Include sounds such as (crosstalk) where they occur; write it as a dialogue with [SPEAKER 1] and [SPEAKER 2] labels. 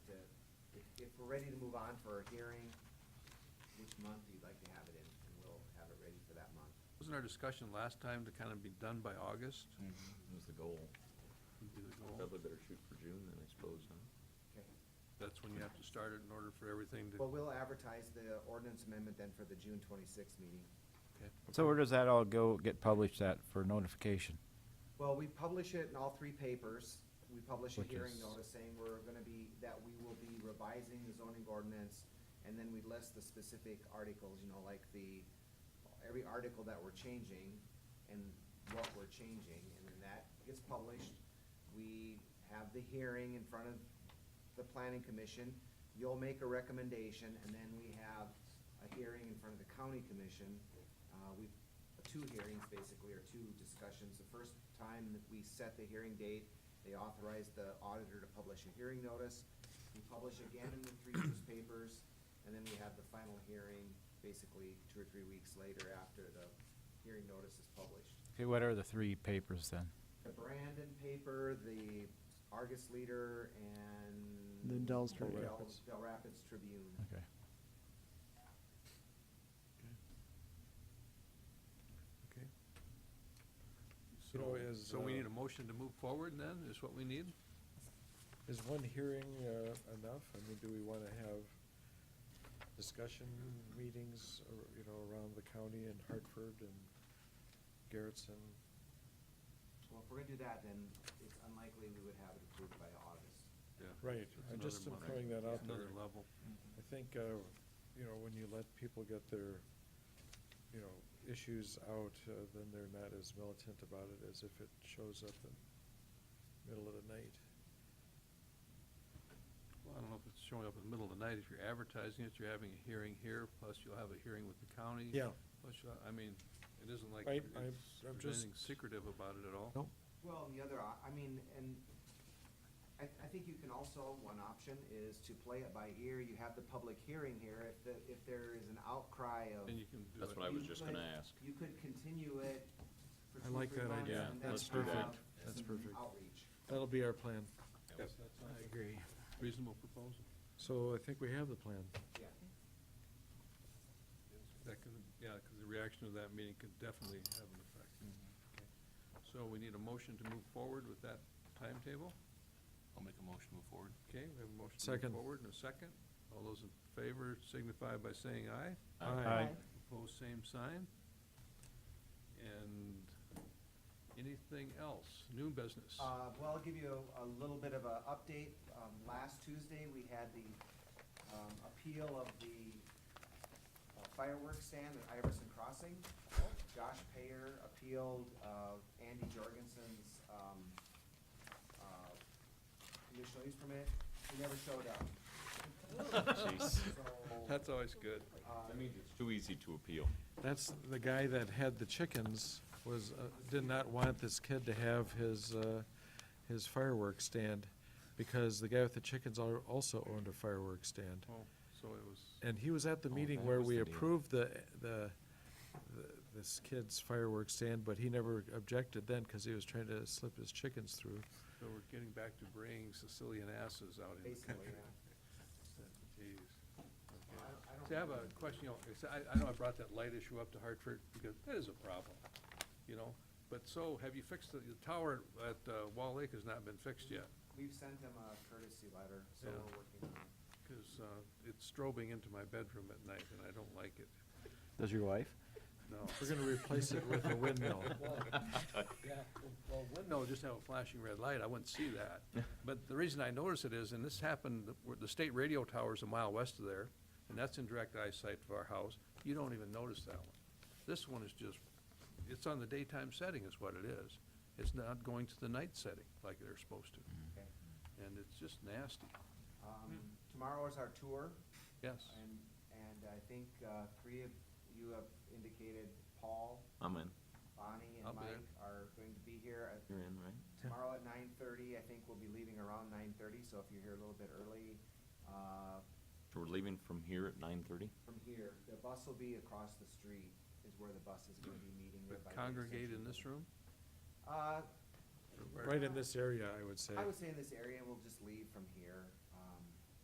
[SPEAKER 1] ready to move on for a hearing, which month you'd like to have it in, and we'll have it ready for that month.
[SPEAKER 2] Wasn't our discussion last time to kind of be done by August?
[SPEAKER 3] That Mm-hmm. was the goal.
[SPEAKER 2] would be the goal?
[SPEAKER 3] Probably better shoot for June then, I suppose, huh?
[SPEAKER 1] Okay.
[SPEAKER 2] That's when you have to start it in order for everything to.
[SPEAKER 1] But we'll advertise the ordinance amendment then for the June twenty-sixth meeting.
[SPEAKER 2] Okay.
[SPEAKER 4] So where does that all go, get published at for notification?
[SPEAKER 1] Well, we publish it in all three papers. We publish a
[SPEAKER 4] Which
[SPEAKER 1] hearing
[SPEAKER 4] is-
[SPEAKER 1] notice saying we're gonna be, that we will be revising the zoning ordinance, and then we list the specific articles, you know, like the, every article that we're changing and what we're changing, and then that gets published. We have the hearing in front of the planning commission. You'll make a recommendation, and then we have a hearing in front of the county commission. Uh, we two hearings basically, or two discussions. The first time that we set the hearing date, they authorized the auditor to publish a hearing notice. We publish again in the three newspapers, and then we have the final hearing basically two or three weeks later after the hearing notice is published.
[SPEAKER 4] Okay, what are the three papers then?
[SPEAKER 1] The Brandon paper, the Argus Leader, and.
[SPEAKER 5] The Dells
[SPEAKER 1] Del-
[SPEAKER 5] Tribune. Rapids.
[SPEAKER 1] Del Rapids Tribune.
[SPEAKER 4] Okay.
[SPEAKER 2] Okay.
[SPEAKER 6] So is,
[SPEAKER 2] So we
[SPEAKER 6] uh,
[SPEAKER 2] need a motion to move forward then, is what we need?
[SPEAKER 6] Is one hearing uh, enough? I mean, do we want to have discussion meetings, ar- you know, around the county and Hartford and Garrettson?
[SPEAKER 1] Well, if we're gonna do that, then it's unlikely we would have it approved by August.
[SPEAKER 2] Yeah.
[SPEAKER 6] Right,
[SPEAKER 2] It's
[SPEAKER 6] I
[SPEAKER 2] another
[SPEAKER 6] just am
[SPEAKER 2] month.
[SPEAKER 6] throwing that out there.
[SPEAKER 2] Another level.
[SPEAKER 6] I think, uh, you know, when you let people get their, you know, issues out, uh, then they're not as militant about it as if it shows up in middle of the night.
[SPEAKER 2] Well, I don't know if it's showing up in the middle of the night, if you're advertising it, you're having a hearing here, plus you'll have a hearing with the county.
[SPEAKER 6] Yeah.
[SPEAKER 2] Plus, you'll- I mean, it isn't like
[SPEAKER 6] I- I-
[SPEAKER 2] it's-
[SPEAKER 6] I'm
[SPEAKER 2] there's
[SPEAKER 6] just-
[SPEAKER 2] anything secretive about it at all.
[SPEAKER 6] Nope.
[SPEAKER 1] Well, and the other, op- I mean, and I, I think you can also, one option is to play it by ear. You have the public hearing here. If the, if there is an outcry of.
[SPEAKER 2] And you can do it.
[SPEAKER 3] That's what I was
[SPEAKER 1] You
[SPEAKER 3] just
[SPEAKER 1] could-
[SPEAKER 3] gonna ask.
[SPEAKER 1] You could continue it for
[SPEAKER 6] I
[SPEAKER 1] two,
[SPEAKER 6] like
[SPEAKER 1] three
[SPEAKER 6] that
[SPEAKER 1] months.
[SPEAKER 3] idea.
[SPEAKER 1] and
[SPEAKER 3] Yeah,
[SPEAKER 1] then
[SPEAKER 3] let's do that.
[SPEAKER 1] have
[SPEAKER 6] That's
[SPEAKER 1] some
[SPEAKER 6] perfect.
[SPEAKER 1] Outreach.
[SPEAKER 6] That'll be our plan.
[SPEAKER 2] Yes, I agree. Reasonable proposal.
[SPEAKER 6] So I think we have the plan.
[SPEAKER 1] Yeah.
[SPEAKER 2] That could, yeah, because the reaction of that meeting could definitely have an effect. Okay. So we need a motion to move forward with that timetable.
[SPEAKER 3] I'll make a motion to move forward.
[SPEAKER 2] Okay, we have a motion to
[SPEAKER 6] Second.
[SPEAKER 2] move forward and a second. All those in favor signify by saying aye.
[SPEAKER 4] Aye.
[SPEAKER 2] Opposed, same sign. And anything else? New business? (laughs)
[SPEAKER 1] Uh, well, I'll give you a, a little bit of a update. Um, last Tuesday, we had the, um, appeal of the uh, fireworks stand at Iverson Crossing. Josh Payer appealed, uh, Andy Jorgensen's, um, uh, conditional use permit. He never showed up. So,
[SPEAKER 2] That's always good.
[SPEAKER 1] uh,
[SPEAKER 3] That means it's too easy to appeal.
[SPEAKER 6] That's the guy that had the chickens was, uh, did not want this kid to have his, uh, his fireworks stand because the guy with the chickens al- also owned a fireworks stand.
[SPEAKER 2] Oh, so it was,
[SPEAKER 6] And he was at the
[SPEAKER 3] Oh,
[SPEAKER 6] meeting
[SPEAKER 3] that
[SPEAKER 6] where
[SPEAKER 3] was
[SPEAKER 6] we
[SPEAKER 3] the deal.
[SPEAKER 6] approved the, the, the- this kid's fireworks stand, but he never objected then because he was trying to slip his chickens through.
[SPEAKER 2] so we're getting back to bringing Sicilian asses out in the
[SPEAKER 1] Basically,
[SPEAKER 2] country. Jeez.
[SPEAKER 1] I don't- I don't
[SPEAKER 2] See, I have a question, you know, it's- I, I know I brought that light issue up to Hartford, because that is a problem, you know? But so, have you fixed, the the tower at uh, Wall Lake has not been fixed yet,
[SPEAKER 1] we've sent him a courtesy letter, so
[SPEAKER 2] Yeah.
[SPEAKER 1] we're working on it.
[SPEAKER 2] because uh, it's strobing into my bedroom at night, and I don't like it,
[SPEAKER 4] Does your wife?
[SPEAKER 2] no.
[SPEAKER 6] We're gonna replace it
[SPEAKER 2] (laughs)
[SPEAKER 6] with a windmill.
[SPEAKER 2] Yeah, well, windmill just have a flashing red light, I wouldn't see that. But the reason I notice it is, and this happened, where the state radio tower's a mile west of there, and that's in direct eyesight of our house, you don't even notice that one. This one is just, it's on the daytime setting is what it is. It's not going to the night setting like they're supposed to,
[SPEAKER 1] Okay.
[SPEAKER 2] and it's just nasty,
[SPEAKER 1] Um, tomorrow is our tour.
[SPEAKER 2] yes.
[SPEAKER 1] And, and I think uh, three of you have indicated Paul,
[SPEAKER 3] I'm in.
[SPEAKER 1] Bonnie, and
[SPEAKER 2] I'll be there.
[SPEAKER 1] Mike are going to be here. at-
[SPEAKER 3] You're in, right?
[SPEAKER 1] Tomorrow at nine thirty, I think we'll be leaving around nine thirty, so if you're here a little bit early, uh,
[SPEAKER 3] So we're leaving from here at nine thirty?
[SPEAKER 1] from here, the bus will be across the street is where the bus is gonna be meeting.
[SPEAKER 2] But
[SPEAKER 1] right by the
[SPEAKER 2] congregate
[SPEAKER 1] intersection.
[SPEAKER 2] in this room?
[SPEAKER 1] Uh,
[SPEAKER 2] or where-
[SPEAKER 6] Right in this area, I would say.
[SPEAKER 1] I would say in this area, and we'll just leave from here. um,